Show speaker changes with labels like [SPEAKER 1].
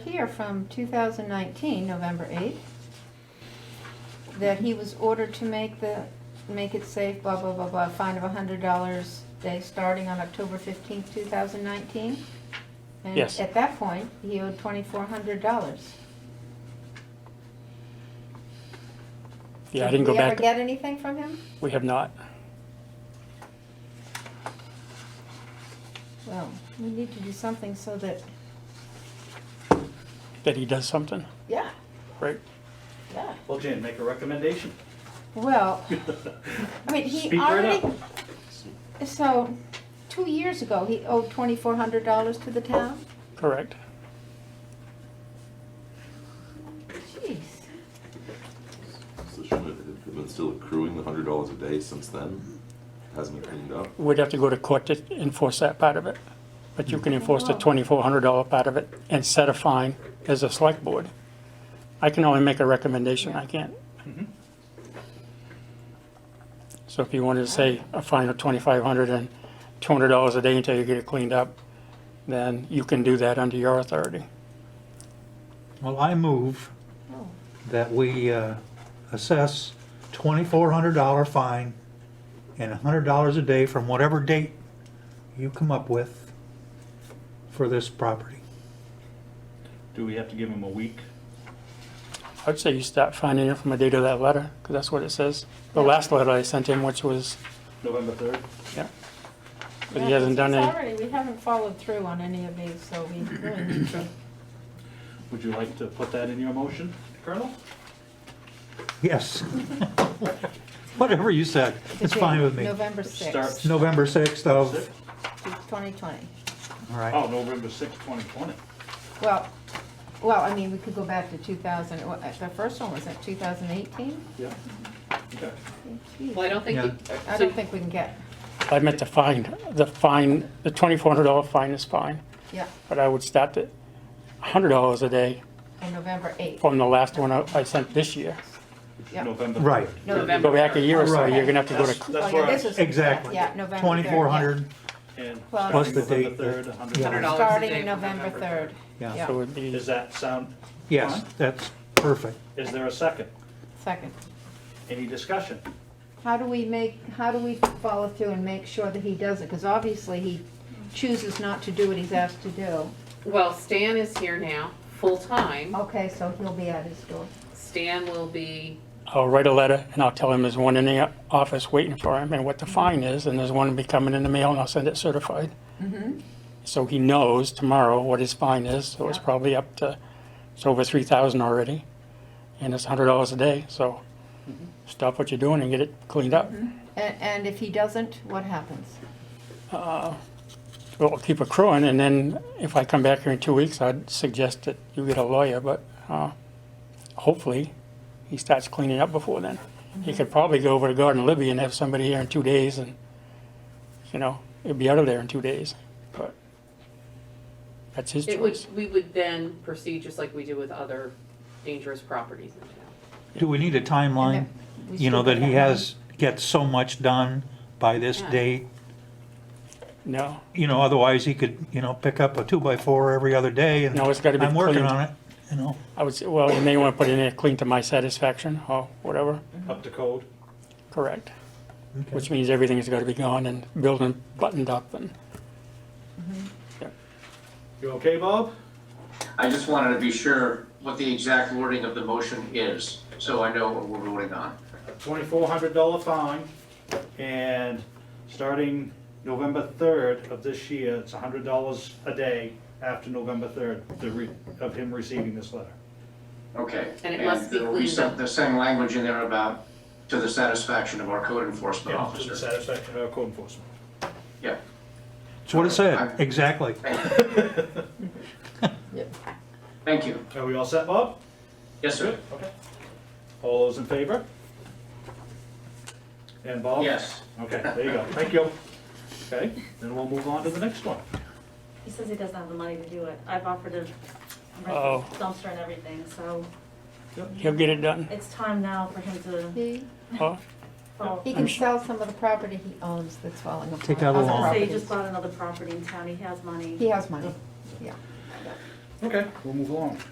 [SPEAKER 1] here from 2019, November 8th, that he was ordered to make the, make it safe, blah, blah, blah, blah, fine of $100 day starting on October 15th, 2019.
[SPEAKER 2] Yes.
[SPEAKER 1] And at that point, he owed $2,400.
[SPEAKER 2] Yeah, I didn't go back.
[SPEAKER 1] Did we ever get anything from him?
[SPEAKER 2] We have not.
[SPEAKER 1] Well, we need to do something so that,
[SPEAKER 2] That he does something,
[SPEAKER 1] yeah,
[SPEAKER 2] right?
[SPEAKER 1] yeah.
[SPEAKER 3] Well, Jan, make a recommendation.
[SPEAKER 1] Well, I mean, he
[SPEAKER 3] Speak right
[SPEAKER 1] already,
[SPEAKER 3] up.
[SPEAKER 1] so, two years ago, he owed twenty-four hundred dollars to the town?
[SPEAKER 2] Correct.
[SPEAKER 1] Jeez,
[SPEAKER 4] So shouldn't it have been still accruing the hundred dollars a day since then? Hasn't been cleaned up?
[SPEAKER 2] We'd have to go to court to enforce that part of it. But you
[SPEAKER 1] Mm-hmm.
[SPEAKER 2] can enforce
[SPEAKER 1] Oh,
[SPEAKER 2] the twenty-four hundred dollar part of it and set a fine as a select board. I can only make a recommendation, I can't.
[SPEAKER 1] Mm-hmm.
[SPEAKER 2] So if you wanted to say a fine of twenty-five hundred and two hundred dollars a day until you get it cleaned up, then you can do that under your authority.
[SPEAKER 5] Well, I move
[SPEAKER 1] oh,
[SPEAKER 5] that we uh, assess $2,400 fine and $100 a day from whatever date you come up with for this property.
[SPEAKER 3] Do we have to give him a week?
[SPEAKER 2] I'd say you start finding it from the date of that letter, because that's what it says. The last letter I sent him, which was,
[SPEAKER 3] November third?
[SPEAKER 2] yeah.
[SPEAKER 1] Oh.
[SPEAKER 2] But
[SPEAKER 1] Yeah,
[SPEAKER 2] he hasn't done
[SPEAKER 1] it's
[SPEAKER 2] any,
[SPEAKER 1] Already, we haven't followed through on any of these, so we really need to.
[SPEAKER 3] Would you like to put that in your motion, Colonel?
[SPEAKER 5] Yes. Whatever you said, it's fine with me.
[SPEAKER 1] November
[SPEAKER 3] Start-
[SPEAKER 1] sixth,
[SPEAKER 5] November 6th of,
[SPEAKER 3] Six?
[SPEAKER 1] twenty twenty.
[SPEAKER 5] all
[SPEAKER 3] Oh,
[SPEAKER 5] right.
[SPEAKER 3] November sixth, twenty twenty.
[SPEAKER 1] Well, well, I mean, we could go back to two thousand, uh, the first one was at two thousand eighteen?
[SPEAKER 3] Yeah. Okay.
[SPEAKER 6] Well, I don't think, you-
[SPEAKER 1] I
[SPEAKER 6] so
[SPEAKER 1] don't think we can get,
[SPEAKER 2] I meant to find, the fine, the twenty-four hundred dollar fine is fine,
[SPEAKER 1] yeah,
[SPEAKER 2] but I would start at hundred dollars a day
[SPEAKER 1] on November eighth,
[SPEAKER 2] from the last one I I sent this year.
[SPEAKER 1] yeah.
[SPEAKER 3] November.
[SPEAKER 5] Right.
[SPEAKER 3] third.
[SPEAKER 6] November.
[SPEAKER 2] Go back a year or so,
[SPEAKER 5] Right.
[SPEAKER 2] you're gonna have to go
[SPEAKER 3] That's
[SPEAKER 2] to,
[SPEAKER 3] that's
[SPEAKER 1] Oh, yeah,
[SPEAKER 3] where I,
[SPEAKER 1] this is-
[SPEAKER 5] Exactly.
[SPEAKER 1] Yeah, November third. yeah.
[SPEAKER 5] 2,400,
[SPEAKER 3] and
[SPEAKER 1] Well,
[SPEAKER 3] starting
[SPEAKER 5] Plus the
[SPEAKER 3] November
[SPEAKER 5] date.
[SPEAKER 3] third, a hundred
[SPEAKER 5] Yeah.
[SPEAKER 3] dollars.
[SPEAKER 1] Starting
[SPEAKER 6] from
[SPEAKER 1] November
[SPEAKER 6] November
[SPEAKER 1] third.
[SPEAKER 5] Yeah.
[SPEAKER 2] so it would be,
[SPEAKER 3] Does that sound?
[SPEAKER 5] yes,
[SPEAKER 3] fine?
[SPEAKER 5] that's perfect.
[SPEAKER 3] Is there a second?
[SPEAKER 1] Second.
[SPEAKER 3] Any discussion?
[SPEAKER 1] How do we make, how do we follow through and make sure that he does it? Because obviously he chooses not to do what he's asked to do.
[SPEAKER 6] well, Stan is here now, full-time.
[SPEAKER 2] Oh.
[SPEAKER 1] Okay, so he'll be at his door.
[SPEAKER 6] Stan will be,
[SPEAKER 2] I'll write a letter and I'll tell him there's one in the office waiting for him and what the fine is, and there's one to be coming in the mail and I'll send it certified. So he knows tomorrow what his fine is, so it's
[SPEAKER 1] Yeah.
[SPEAKER 2] probably up to, it's over three thousand already, and it's hundred dollars a day, so stop what you're doing and get it cleaned up.
[SPEAKER 1] And, and if he doesn't, what happens?
[SPEAKER 2] Well, I'll keep accruing, and then if I come back here in two weeks, I'd suggest that you get a lawyer, but uh, hopefully he starts cleaning up before then. He could probably go over to Garden Libby and have somebody here in two days, and, you know, it'd be out of there in two days, but that's his
[SPEAKER 6] it would,
[SPEAKER 2] choice.
[SPEAKER 6] we would then proceed just like we do with other dangerous properties in town.
[SPEAKER 5] Do we need a timeline?
[SPEAKER 1] We
[SPEAKER 5] You know,
[SPEAKER 1] still
[SPEAKER 5] that
[SPEAKER 1] got
[SPEAKER 5] he has, gets so much done by this
[SPEAKER 6] Yeah.
[SPEAKER 5] date?
[SPEAKER 2] No,
[SPEAKER 5] you know, otherwise he could, you know, pick up a two-by-four every other day and.
[SPEAKER 2] No, it's gotta be
[SPEAKER 5] I'm working
[SPEAKER 2] cleaned.
[SPEAKER 5] on it, you know,
[SPEAKER 2] I would say, well, you may want to put in there, clean to my satisfaction, or whatever,
[SPEAKER 3] Up to code?
[SPEAKER 2] correct. Which means everything's got to be gone and building buttoned up and.
[SPEAKER 3] You okay, Bob?
[SPEAKER 7] I just wanted to be sure what the exact wording of the motion is, so I know what we're voting on.
[SPEAKER 3] Twenty-four hundred dollar fine, and starting November third of this year, it's hundred dollars a day after November third, the re, of him receiving this letter.
[SPEAKER 7] Okay.
[SPEAKER 6] And it must be
[SPEAKER 7] there will
[SPEAKER 6] cleaned
[SPEAKER 7] some-
[SPEAKER 6] up.
[SPEAKER 7] There's some language in there about to the satisfaction of our code enforcement
[SPEAKER 3] Yeah, to the
[SPEAKER 7] officer.
[SPEAKER 3] satisfaction of our code enforcement.
[SPEAKER 7] Yeah.
[SPEAKER 5] that's what it said,
[SPEAKER 7] I'm-
[SPEAKER 5] exactly.
[SPEAKER 7] Thank you.
[SPEAKER 3] Are we all set, Bob?
[SPEAKER 7] Yes, sir.
[SPEAKER 3] Okay. All those in favor? And Bob?
[SPEAKER 7] Yes.
[SPEAKER 3] Okay, there you go. Thank you. Okay, then we'll move on to the next one.
[SPEAKER 8] He says he doesn't have the money to do it. I've offered to
[SPEAKER 2] Uh-oh.
[SPEAKER 8] rent the dumpster and everything, so
[SPEAKER 2] He'll get it done.
[SPEAKER 8] it's time now for him to
[SPEAKER 1] He,
[SPEAKER 2] Oh,
[SPEAKER 8] fall.
[SPEAKER 1] he can sell some of the property he owns that's falling apart.
[SPEAKER 5] Take out a
[SPEAKER 1] Other
[SPEAKER 5] loan.
[SPEAKER 8] Say he
[SPEAKER 1] properties.
[SPEAKER 8] just bought another property in town, he has money.
[SPEAKER 1] He has money, yeah.
[SPEAKER 3] Okay, we'll move along.